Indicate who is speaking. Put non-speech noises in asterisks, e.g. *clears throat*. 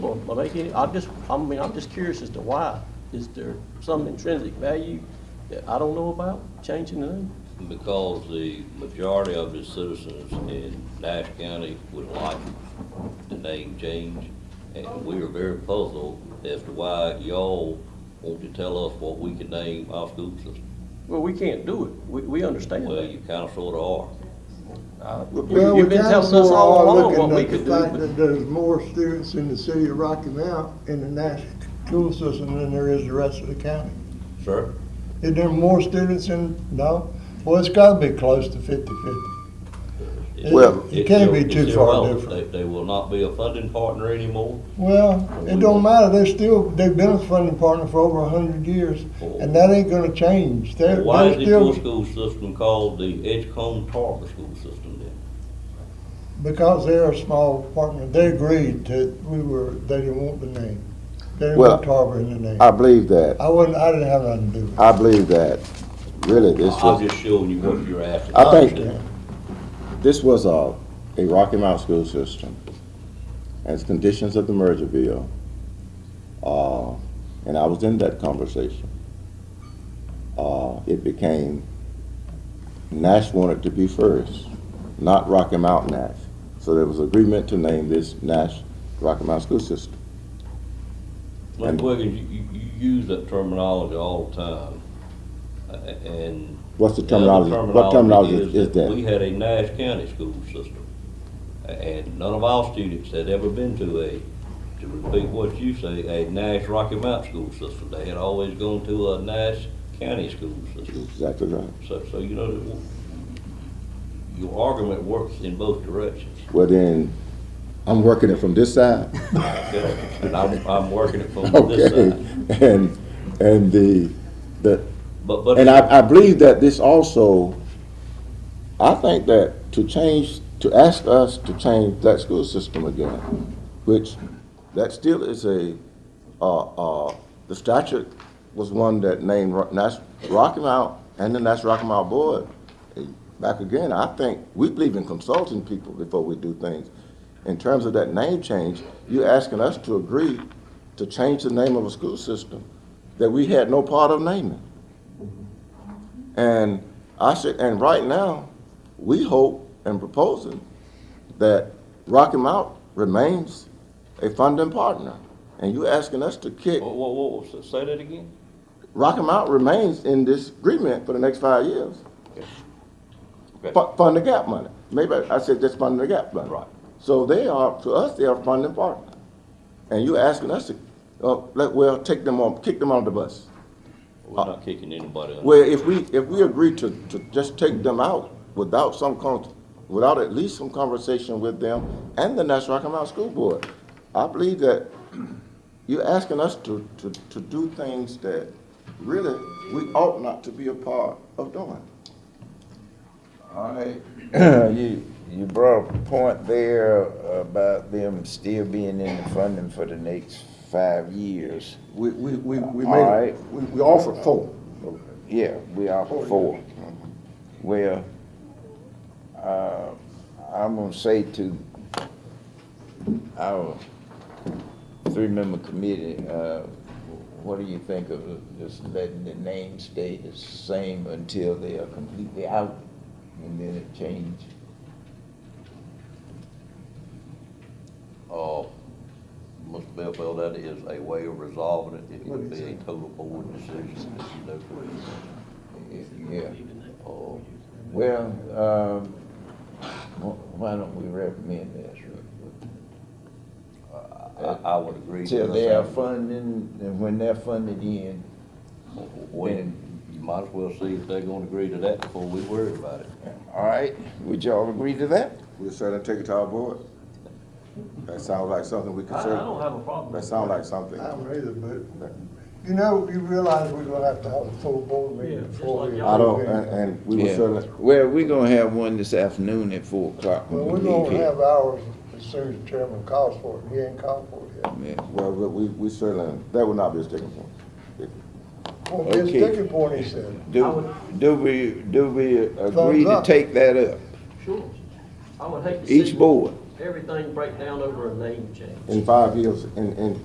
Speaker 1: or or make any, I'm just, I mean, I'm just curious as to why. Is there some intrinsic value that I don't know about changing the name?
Speaker 2: Because the majority of the citizens in Nash County would like the name change, and we are very puzzled as to why y'all want to tell us what we can name our school system.
Speaker 1: Well, we can't do it. We, we understand
Speaker 2: Well,
Speaker 1: that.
Speaker 2: you kind of sort of
Speaker 1: Uh, you-
Speaker 3: Well, we
Speaker 1: You've been
Speaker 3: kind of
Speaker 1: telling us
Speaker 3: more
Speaker 1: all
Speaker 3: are
Speaker 1: along
Speaker 3: looking
Speaker 1: what we
Speaker 3: at
Speaker 1: could
Speaker 3: the
Speaker 1: do,
Speaker 3: fact
Speaker 1: but
Speaker 3: that there's more students in the city of Rocky Mount in the national school system than there is the rest of the county.
Speaker 2: are. Sir?
Speaker 3: Is there more students in, no? Well, it's gotta be close to fifty-fifty.
Speaker 2: it's-
Speaker 3: Well-
Speaker 2: it's
Speaker 3: It can't be
Speaker 2: irre-
Speaker 3: too
Speaker 2: it's
Speaker 3: far
Speaker 2: irrelevant.
Speaker 3: different.
Speaker 2: They, they will not be a funding partner anymore.
Speaker 3: Well, it don't matter, they're still, they've been a funding partner for over a hundred years, and that ain't gonna change. They're,
Speaker 2: Why
Speaker 3: they're
Speaker 2: is your
Speaker 3: still,
Speaker 2: school system called the Edgecombe Tarver School System then?
Speaker 3: because they're a small partner, they agreed that we were, they didn't want the name. They didn't
Speaker 4: Well,
Speaker 3: want Tarver in the name.
Speaker 4: I believe that.
Speaker 3: I wasn't, I didn't have nothing to do with it.
Speaker 4: I believe that. Really, this
Speaker 2: I'm
Speaker 4: was,
Speaker 2: just showing you what you're asking.
Speaker 4: I think-
Speaker 2: understand.
Speaker 4: this was a, a Rocky Mount school system as conditions of the merger bill. Uh, and I was in that conversation. Uh, it became, Nash wanted to be first, not Rocky Mount Nash. So there was agreement to name this Nash Rocky Mount School System.
Speaker 2: Mr. Wiggins, you, you- you use that terminology all the time, a- a- and.
Speaker 4: What's the
Speaker 2: other
Speaker 4: terminology, what terminology is is
Speaker 2: We
Speaker 4: that?
Speaker 2: had a Nash County school system, a- and none of our students had ever been to a, to repeat what you say, a Nash Rocky Mount school system. They had always gone to a Nash County school system.
Speaker 4: Exactly right.
Speaker 2: So, so you know, that your argument works in both directions.
Speaker 4: Well, then, I'm working it from this side.
Speaker 2: okay? And I'm, I'm working it from this
Speaker 4: *laughs* Okay,
Speaker 2: side.
Speaker 4: and, and the, the,
Speaker 2: But, but.
Speaker 4: and I, I believe that this also, I think that to change, to ask us to change that school system again, which, that still is a, uh, uh, the statute was one that named Ro- Nash, Rocky Mount and the Nash Rocky Mount Board. And Back again, I think, we believe in consulting people before we do things. In terms of that name change, you're asking us to agree to change the name of a school system that we had no part of naming. And I said, and right now, we hope and proposing that Rocky Mount remains a funding partner. And you asking us to kick,
Speaker 2: Whoa, whoa, whoa, s- say that again?
Speaker 4: Rocky Mount remains in this agreement for the next five years.
Speaker 2: Okay.
Speaker 4: Fu- Fund the gap money. Maybe I said just fund the gap money.
Speaker 2: Right.
Speaker 4: So they are, to us, they are funding partner. And you asking us to, uh, let, well, take them on, kick them on the bus.
Speaker 2: We're not kicking anybody under.
Speaker 4: Well, if we, if we agree to, to just take them out without some con, without at least some conversation with them and the National Rocky Mountain School Board, I believe that *clears throat* you're asking us to, to, to do things that really we ought not to be a part of doing.
Speaker 5: All right, *clears throat* you, you brought a point there about them still being in the funding for the next five years.
Speaker 4: We, we, we, we
Speaker 5: All
Speaker 4: made,
Speaker 5: right.
Speaker 4: we, we offered four.
Speaker 5: Yeah, we are for four. Well, uh, I'm gonna say to our three-member committee, uh, what do you think of just letting the name stay the same until they are completely out and then it change?
Speaker 2: Uh, Mr. Bellfield, that is a way of resolving it. It would be a total board decision, as you know.
Speaker 5: Yeah. Well, um, wh- why don't we recommend this?
Speaker 2: I, I would agree.
Speaker 5: Till they are funding, and when they're funded in,
Speaker 2: When, you might as well see if they're gonna agree to that before we worry about it.
Speaker 5: all right, would y'all agree to that?
Speaker 4: We'll certainly take it to our board. That sounds like something we
Speaker 1: I,
Speaker 4: could
Speaker 1: I
Speaker 4: certainly,
Speaker 1: don't have a problem.
Speaker 4: that sounds like something.
Speaker 3: I don't either, but, you know, you realize we're gonna have to have a full board
Speaker 1: Yeah,
Speaker 3: meeting
Speaker 1: just
Speaker 3: before
Speaker 1: like
Speaker 3: we.
Speaker 1: y'all.
Speaker 4: I don't, and, and we were
Speaker 5: Yeah.
Speaker 4: certainly,
Speaker 5: Well, we're gonna have one this afternoon at four o'clock
Speaker 3: Well,
Speaker 5: when
Speaker 3: we're
Speaker 5: we leave
Speaker 3: gonna
Speaker 5: here.
Speaker 3: have ours as soon as chairman calls for it, he ain't called for it yet.
Speaker 5: Yeah.
Speaker 4: Well, we, we- we certainly, that would not be a sticking point.
Speaker 3: Well, his
Speaker 5: Okay.
Speaker 3: sticking point, he said,
Speaker 5: Do, do we, do we agree
Speaker 3: Thumbs
Speaker 5: to
Speaker 3: up.
Speaker 5: take that up?
Speaker 1: Sure. I would hate to see.
Speaker 5: Each board,
Speaker 1: everything break down over a name change.
Speaker 4: in five years, in, in